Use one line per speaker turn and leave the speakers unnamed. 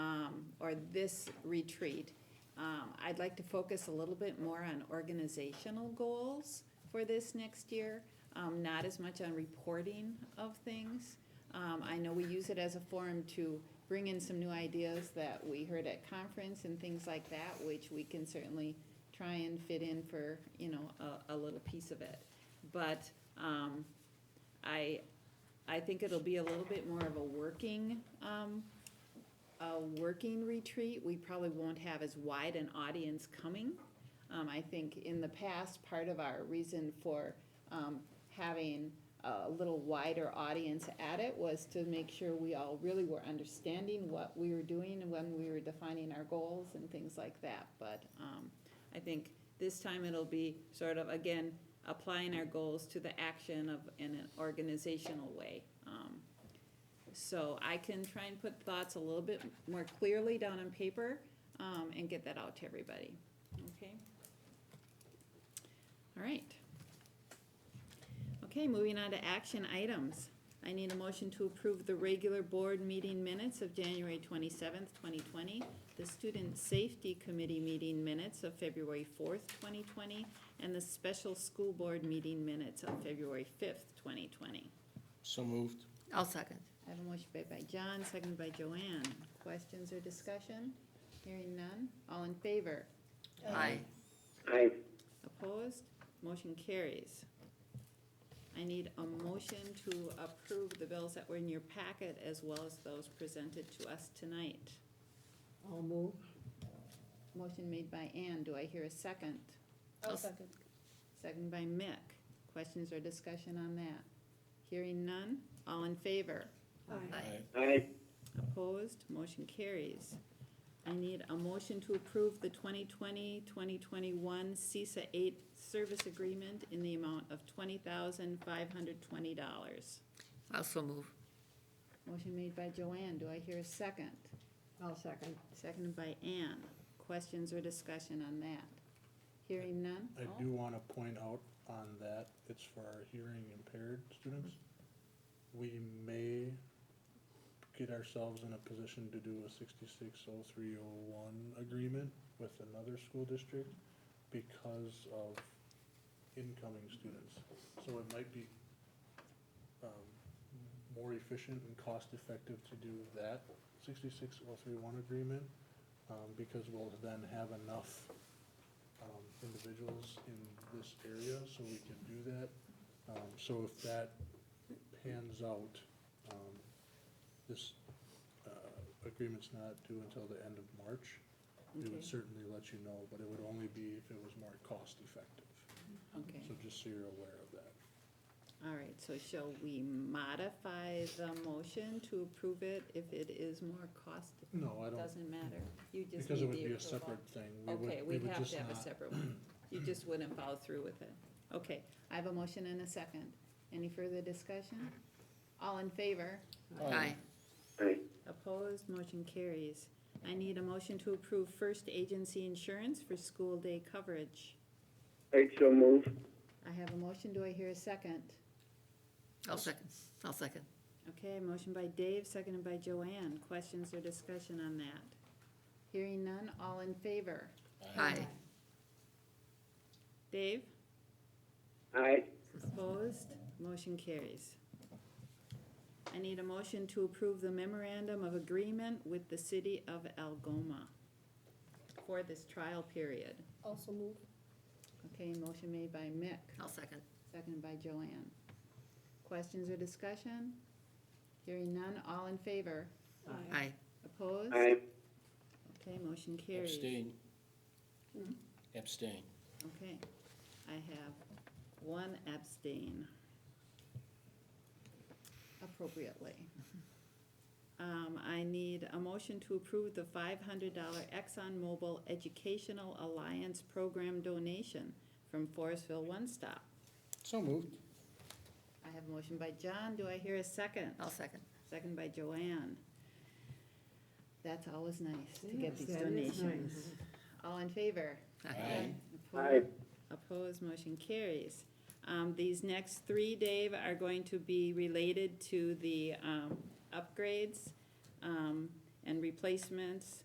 for um, this retreat, um, I'd like to focus a little bit more on organizational goals for this next year, um, not as much on reporting of things. Um, I know we use it as a forum to bring in some new ideas that we heard at conference and things like that, which we can certainly try and fit in for, you know, a, a little piece of it. But, um, I, I think it'll be a little bit more of a working, um, a working retreat. We probably won't have as wide an audience coming. Um, I think in the past, part of our reason for, um, having a little wider audience at it was to make sure we all really were understanding what we were doing and when we were defining our goals and things like that. But, um, I think this time it'll be sort of, again, applying our goals to the action of, in an organizational way. Um, So I can try and put thoughts a little bit more clearly down on paper, um, and get that out to everybody, okay? All right. Okay, moving on to action items. I need a motion to approve the regular board meeting minutes of January twenty-seventh, twenty twenty, the Student Safety Committee meeting minutes of February fourth, twenty twenty, and the Special School Board meeting minutes of February fifth, twenty twenty.
So moved.
I'll second.
I have a motion made by John, seconded by Joanne. Questions or discussion? Hearing none. All in favor?
Aye.
Aye.
Opposed? Motion carries. I need a motion to approve the bills that were in your packet as well as those presented to us tonight.
I'll move.
Motion made by Ann. Do I hear a second?
I'll
second.
Second by Mick. Questions or discussion on that? Hearing none. All in favor?
Aye.
Aye.
Opposed, motion carries. I need a motion to approve the 2020-2021 CISA eight service agreement in the amount of twenty thousand five hundred twenty dollars.
Also move.
Motion made by Joanne, do I hear a second?
I'll second.
Seconded by Ann. Questions or discussion on that? Hearing none?
I do want to point out on that, it's for our hearing impaired students. We may get ourselves in a position to do a sixty-six oh three oh one agreement with another school district because of incoming students. So it might be, um, more efficient and cost-effective to do that sixty-six oh three one agreement, um, because we'll then have enough um, individuals in this area, so we can do that. Um, so if that pans out, um, this, uh, agreement's not due until the end of March. We
Okay.
would certainly let you know, but it would only be if it was more cost effective.
Okay,
So just so you're aware of that.
all right, so shall we modify the motion to approve it if it is more cost?
No, I don't,
Doesn't matter, you just
because it
need
would
the
be a
approval.
separate thing. We would-
Okay,
we
we'd
would
have
just
to have a
not-
separate one. You just wouldn't follow through with it. Okay, I have a motion and a second. Any further discussion? All in favor?
Aye.
Aye.
Opposed, motion carries. I need a motion to approve first agency insurance for school day coverage.
Aye, so move.
I have a motion, do I hear a second?
I'll second. I'll second.
Okay, motion by Dave, seconded by Joanne. Questions or discussion on that? Hearing none, all in favor?
Aye.
Dave?
Aye.
Opposed, motion carries. I need a motion to approve the memorandum of agreement with the city of Algoma for this trial period.
Also move.
Okay, motion made by Mick,
I'll second.
seconded by Joanne. Questions or discussion? Hearing none, all in favor?
Aye.
Opposed?
Aye.
Okay, motion carries. Hmm?
Abstain. Abstain.
Okay, I have one abstain. Appropriately. Um, I need a motion to approve the five hundred dollar ExxonMobil Educational Alliance Program donation from Forestville One Stop.
So moved.
I have a motion by John, do I hear a second?
I'll second.
Second by Joanne. That's always nice to get
Yes,
these
that is
donations. All in favor?
Aye.
Aye.
Opposed, motion carries. Um, these next three, Dave, are going to be related to the, um, upgrades, um, and replacements